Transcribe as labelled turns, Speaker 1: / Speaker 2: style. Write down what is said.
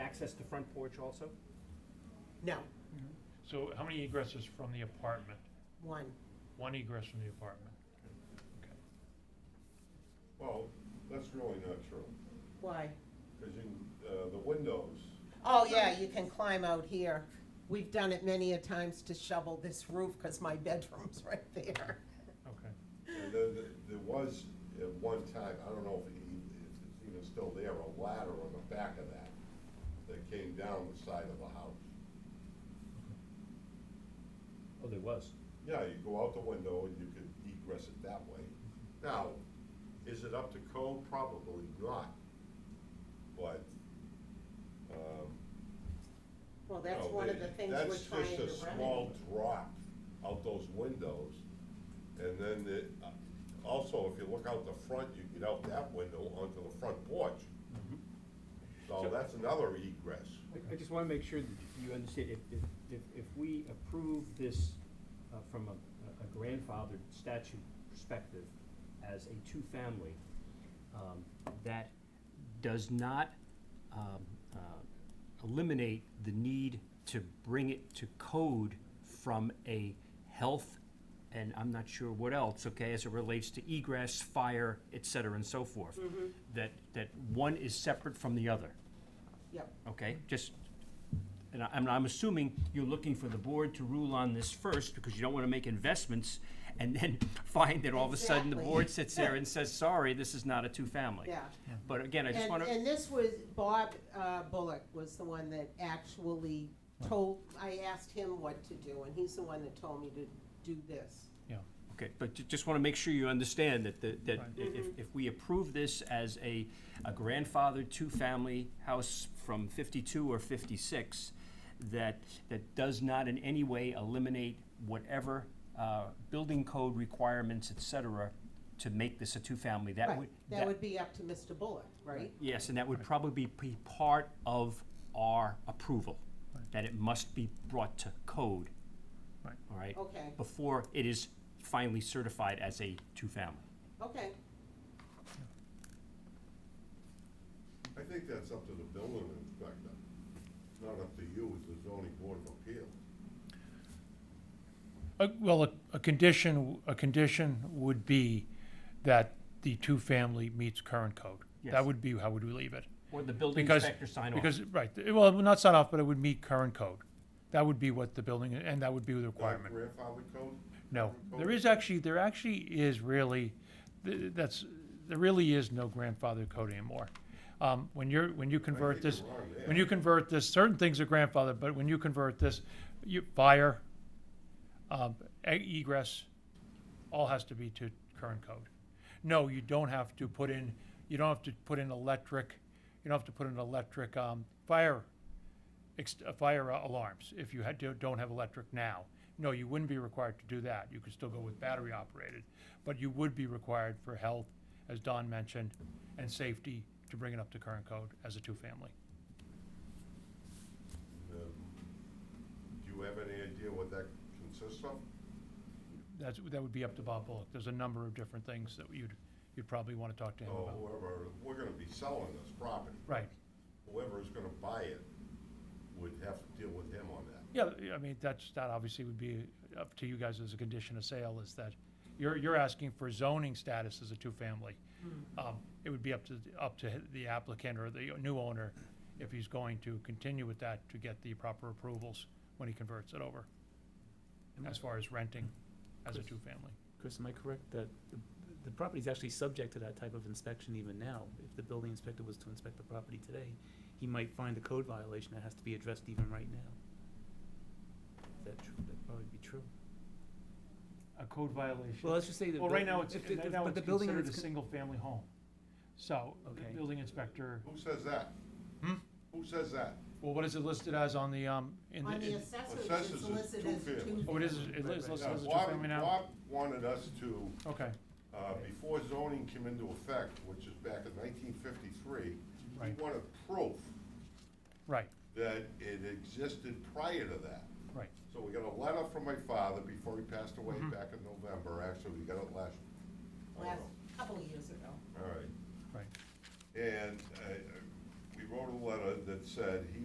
Speaker 1: access to front porch also?
Speaker 2: No,
Speaker 3: So how many egresses from the apartment?
Speaker 2: one.
Speaker 3: One egress from the apartment? Okay.
Speaker 4: Well, that's really not true,
Speaker 2: Why?
Speaker 4: because you, can- uh, the windows,
Speaker 2: Oh, yeah, you can climb out here. We've done it many a times to shovel this roof because my bedroom's right there.
Speaker 3: Okay.
Speaker 4: and then th- there was at one time, I don't know if it e- if it's even still there, a ladder on the back of that that came down the side of the house.
Speaker 5: Oh, there was.
Speaker 4: Yeah, you go out the window and you could egress it that way. Now, is it up to code? Probably not. But, um,
Speaker 2: Well, that's
Speaker 4: No,
Speaker 2: one of
Speaker 4: Oh, they-
Speaker 2: the things
Speaker 4: that's
Speaker 2: we're trying to
Speaker 4: just a small
Speaker 2: remedy.
Speaker 4: drop out those windows, and then it, uh, also, if you look out the front, you get out that window onto the front porch.
Speaker 3: Mm-hmm.
Speaker 4: So
Speaker 1: So-
Speaker 4: that's another egress.
Speaker 5: I, I just wanna make sure that you understand, if, if, if, if we approve this, uh, from a, a grandfathered statute perspective as a two-family, um, that does not, um, uh, eliminate the need to bring it to code from a health and I'm not sure what else, okay, as it relates to egress, fire, et cetera, and so forth. That, that one is separate from the other.
Speaker 2: Yep.
Speaker 5: Okay, just, and I- I'm, I'm assuming you're looking for the board to rule on this first, because you don't wanna make investments, and then find that all of a sudden the board
Speaker 2: Exactly.
Speaker 5: sits there and says, sorry, this is not a two-family.
Speaker 2: Yeah.
Speaker 5: But again, I just
Speaker 2: And,
Speaker 5: wanna,
Speaker 2: and this was, Bob uh, Bullock was the one that actually told, I asked him what to do, and he's the one that told me to do this.
Speaker 3: Yeah.
Speaker 5: okay, but ju- just wanna make sure you understand that, the- that i-
Speaker 3: Right.
Speaker 5: if, if we approve this as a, a grandfathered two-family house from fifty-two or fifty-six, that, that does not in any way eliminate whatever, uh, building code requirements, et cetera, to make this a two-family, that
Speaker 2: Right.
Speaker 5: would.
Speaker 2: That would be up to Mr. Bullock, right?
Speaker 5: Yes, and that would probably be part of our approval, that it must be brought to code.
Speaker 3: Right.
Speaker 5: All right?
Speaker 2: Okay,
Speaker 5: Before it is finally certified as a two-family.
Speaker 2: okay.
Speaker 4: I think that's up to the building inspector, not up to you as the zoning board of appeals.
Speaker 3: Uh, Well, a- a condition, a condition would be that the two-family meets current code.
Speaker 5: Yes.
Speaker 3: That would be how would we leave it.
Speaker 5: Or the building
Speaker 3: Because-
Speaker 5: inspector sign off.
Speaker 3: Because, right, th- well, not sign off, but it would meet current code. That would be what the building, and that would be the requirement.
Speaker 4: Grandfather code?
Speaker 3: No,
Speaker 4: Grandfather
Speaker 3: there
Speaker 4: code?
Speaker 3: is actually, there actually is really, th- that's, there really is no grandfather code anymore. Um, When you're, when you convert
Speaker 4: think you're
Speaker 3: this,
Speaker 4: wrong there.
Speaker 3: when you convert this, certain things are grandfathered, but when you convert this, you, fire, um, e- egress, all has to be to current code. No, you don't have to put in, you don't have to put in electric, you don't have to put in electric, um, fire, ex- uh, fire uh, alarms if you had, to- don't have electric now. No, you wouldn't be required to do that. You could still go with battery operated, but you would be required for health, as Don mentioned, and safety to bring it up to current code as a two-family.
Speaker 4: Um, Do you have any idea what that consists of?
Speaker 3: That's, that would be up to Bob Bullock. There's a number of different things that you'd, you'd probably want to talk to him
Speaker 4: Or
Speaker 3: about.
Speaker 4: whoever, we're gonna be selling this property.
Speaker 3: Right.
Speaker 4: Whoever is gonna buy it would have to deal with him on that.
Speaker 3: Yeah, I mean, that's, that obviously would be up to you guys as a condition of sale, is that you're, you're asking for zoning status as a two-family. Um, It would be up to, up to the applicant or the new owner, if he's going to continue with that, to get the proper approvals when he converts it over, as far as renting as a
Speaker 6: Chris.
Speaker 3: two-family.
Speaker 6: Chris, am I correct that the- the property's actually subject to that type of inspection even now? If the building inspector was to inspect the property today, he might find a code violation that has to be addressed even right now. Is that true? That'd probably be true.
Speaker 3: A code violation.
Speaker 6: Well, let's just say that.
Speaker 3: Well, right now, it's,
Speaker 6: if the-
Speaker 3: right
Speaker 6: if-
Speaker 3: now
Speaker 6: but
Speaker 3: it's
Speaker 6: the building
Speaker 3: considered a
Speaker 6: is con-
Speaker 3: single-family home. So, the
Speaker 6: Okay.
Speaker 3: building inspector,
Speaker 4: Who says that?
Speaker 3: Hmm?
Speaker 4: Who says that?
Speaker 3: well, what is it listed as on the, um, in the?
Speaker 2: On the
Speaker 3: in-
Speaker 2: assessors,
Speaker 4: Assessors
Speaker 2: it's
Speaker 4: is
Speaker 2: listed as
Speaker 4: two-family.
Speaker 2: two.
Speaker 3: Oh, it is,
Speaker 2: family.
Speaker 3: it is listed
Speaker 4: Now,
Speaker 3: as a
Speaker 4: Bob-
Speaker 3: two-family now?
Speaker 4: Bob wanted us to,
Speaker 3: Okay,
Speaker 4: uh, before zoning came into effect, which is back in nineteen fifty-three, he
Speaker 3: Right.
Speaker 4: wanted proof
Speaker 3: right,
Speaker 4: that it existed prior to that.
Speaker 3: right,
Speaker 4: So we got a letter from my father before he passed away
Speaker 3: Mm-hmm.
Speaker 4: back in November, actually, we got it last, I don't
Speaker 2: Last,
Speaker 4: know,
Speaker 2: couple of years ago.
Speaker 4: all right.
Speaker 3: right.
Speaker 4: And, uh, uh, we wrote a letter that said he